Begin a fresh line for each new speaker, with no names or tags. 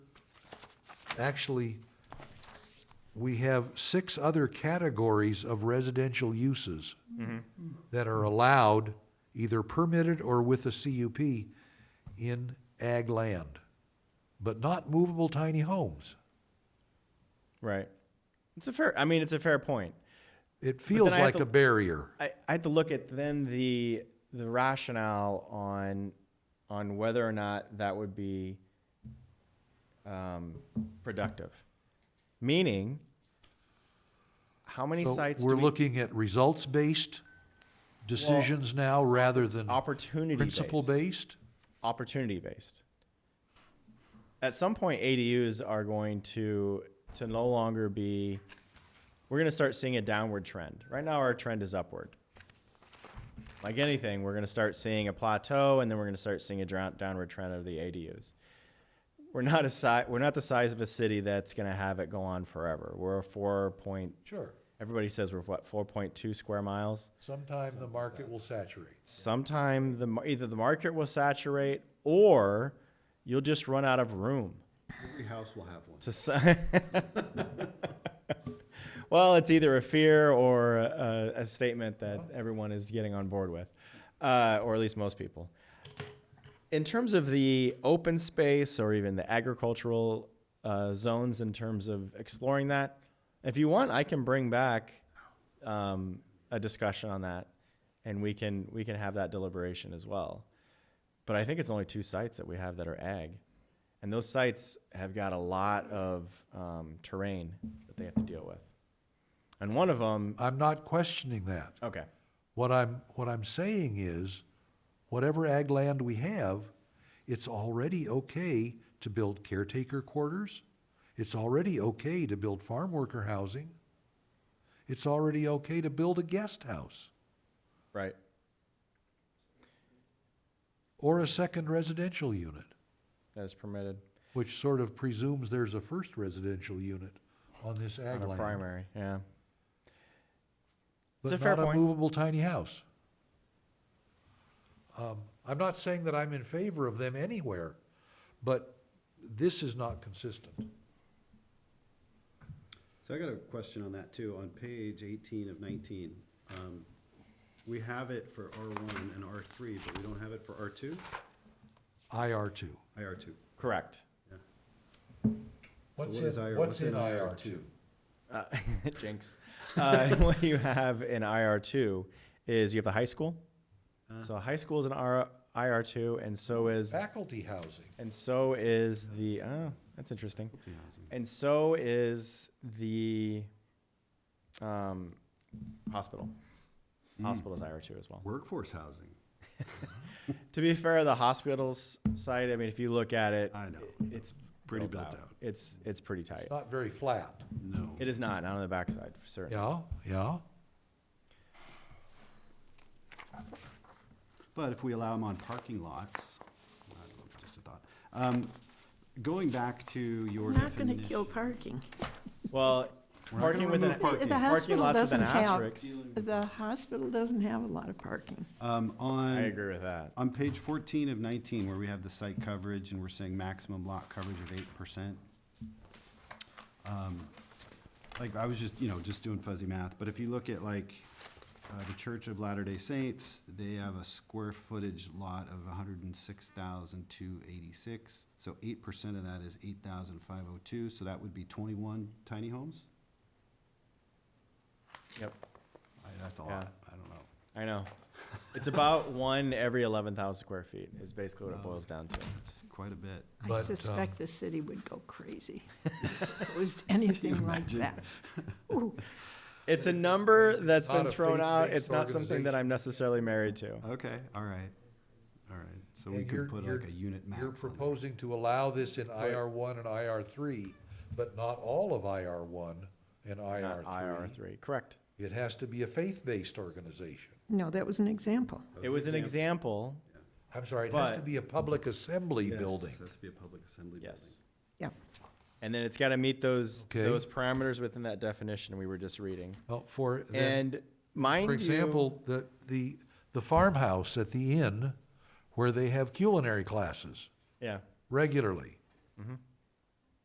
actually, we have six other categories of residential uses
Mm-hmm.
that are allowed, either permitted or with a CUP, in ag land, but not movable tiny homes.
Right. It's a fair. I mean, it's a fair point.
It feels
I have
like
to-
a barrier.
I, I had to look at then the the rationale on on whether or not that would be um, productive. Meaning, how many
So
sites
We're
do we,
looking at results-based decisions now rather than
opportunity based,
principle-based?
opportunity based? At some point, ADUs are going to to no longer be. We're going to start seeing a downward trend. Right now, our trend is upward. like anything, we're going to start seeing a plateau, and then we're going to start seeing a drown- downward trend of the ADUs. We're not a si- we're not the size of a city that's going to have it go on forever. We're a four point.
Sure.
Everybody says we're what four point two square miles.
Sometime the market will saturate.
Sometime the mar- either the market will saturate, or you'll just run out of room.
Every house will have one.
to s- well, it's either a fear or a, a statement that everyone is getting on board with, uh, or at least most people. In terms of the open space or even the agricultural uh, zones, in terms of exploring that, if you want, I can bring back um, a discussion on that, and we can we can have that deliberation as well. But I think it's only two sites that we have that are ag. And those sites have got a lot of um, terrain that they have to deal with. And one of them,
I'm not questioning that.
okay,
What I'm, what I'm saying is, whatever ag land we have, it's already okay to build caretaker quarters. It's already okay to build farm worker housing. It's already okay to build a guest house
right.
or a second residential unit,
That is permitted
which sort of presumes there's a first residential unit on this ag
on a
land.
primary, yeah. It's a
But
fair
not a
point.
movable tiny house. Um, I'm not saying that I'm in favor of them anywhere, but this is not consistent.
So I got a question on that too, on page eighteen of nineteen. Um, We have it for R one and R three, but we don't have it for R two,
IR two.
IR two.
Correct.
What's
what is
in,
IR
what's in
IR
IR two?
Uh, jinx. Uh, what you have in IR2 is you have the high school.
Uh.
So high school is an R- IR2, and so is
Faculty housing.
and so is the. Oh, that's interesting. And so is the um, hospital.
Hmm.
Hospital is IR2 as well.
Workforce housing,
To be fair, the hospital's side, I mean, if you look at it,
I know.
it's
Pretty built out.
It's it's pretty tight.
Not very flat.
no.
It is not, not on the backside, for certain.
Yeah, yeah.
But if we allow them on parking lots, I don't know, just a thought. Um, Going back to your
We're not gonna
definition.
kill parking.
Well,
not
parking
gonna
with an
remove parking.
parking,
The
hospital
lots with
doesn't
an
have-
asterisk.
The hospital doesn't have a lot of parking.
Um,
I
On,
agree with that.
on page fourteen of nineteen, where we have the site coverage and we're saying maximum lot coverage of eight percent. Um, Like, I was just, you know, just doing fuzzy math, but if you look at like, uh, the Church of Latter-day Saints, they have a square footage lot of hundred and six thousand two eighty-six. So eight percent of that is eight thousand five oh two, so that would be twenty-one tiny homes?
Yep,
I, that's a
Yeah.
lot, I don't know.
I know. It's about one every eleven thousand square feet is basically what it
Wow.
boils down to.
It's quite a bit.
But,
I
um,
suspect the city would go crazy if it was anything like
imagine?
that. Ooh,
It's a number that's
Not
been
a
thrown out.
faith-based
It's not something that
organization.
I'm necessarily married to.
Okay, all right, all right. So we
And you're-
could put
you're-
like a unit max.
You're
on there.
proposing to allow this in IR one and IR three, but not all of IR one and IR
Not IR
three.
three, correct.
It has to be a faith-based organization.
No, that was an example.
It was an example,
I'm sorry, it has to
But-
be a public assembly
Yes,
building.
Has to be a public assembly building.
yes.
Yeah.
And then it's got to meet those,
Okay.
those parameters within that definition we were just reading.
Well, for, then,
And mind
for example, the, the, the farmhouse at the inn where they have culinary classes
you, yeah,
regularly.